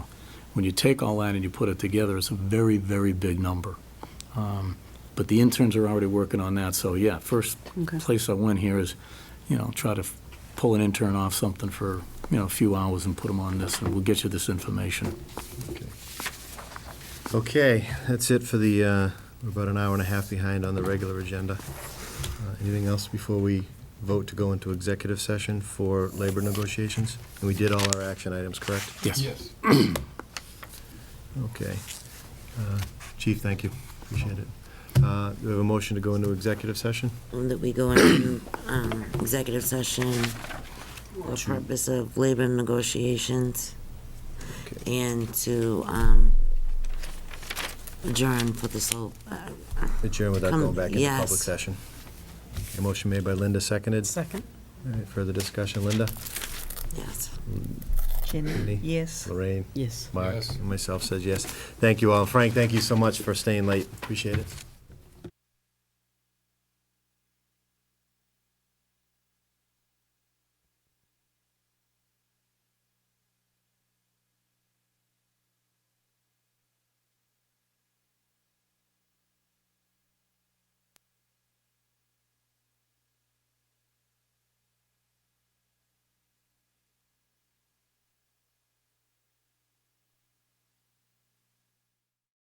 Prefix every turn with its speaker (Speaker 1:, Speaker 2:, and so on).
Speaker 1: When you take all that and you put it together, it's a very, very big number. Um, But the interns are already working on that, so yeah, first
Speaker 2: Okay.
Speaker 1: place I went here is, you know, try to f- pull an intern off something for, you know, a few hours and put them on this, and we'll get you this information.
Speaker 3: Okay, that's it for the, uh, we're about an hour and a half behind on the regular agenda. Uh, Anything else before we vote to go into executive session for labor negotiations? And we did all our action items, correct?
Speaker 1: Yes.
Speaker 3: Okay. Uh, Chief, thank you. Appreciate it. Uh, Do we have a motion to go into executive session?
Speaker 4: Move That we go into um, executive session for purpose of labor negotiations
Speaker 3: Okay.
Speaker 4: and to um, adjourn for the sole, uh,
Speaker 3: Adjourn without
Speaker 4: Come-
Speaker 3: going back into public
Speaker 4: yes.
Speaker 3: session. A motion made by Linda, seconded.
Speaker 2: Second.
Speaker 3: All right, Further discussion, Linda?
Speaker 4: yes.
Speaker 3: Andy?
Speaker 2: Jenny, yes.
Speaker 3: Lorraine?
Speaker 2: Yes.
Speaker 3: Mark?
Speaker 5: Yes.
Speaker 3: And myself says yes. Thank you all. Frank, thank you so much for staying late. Appreciate it.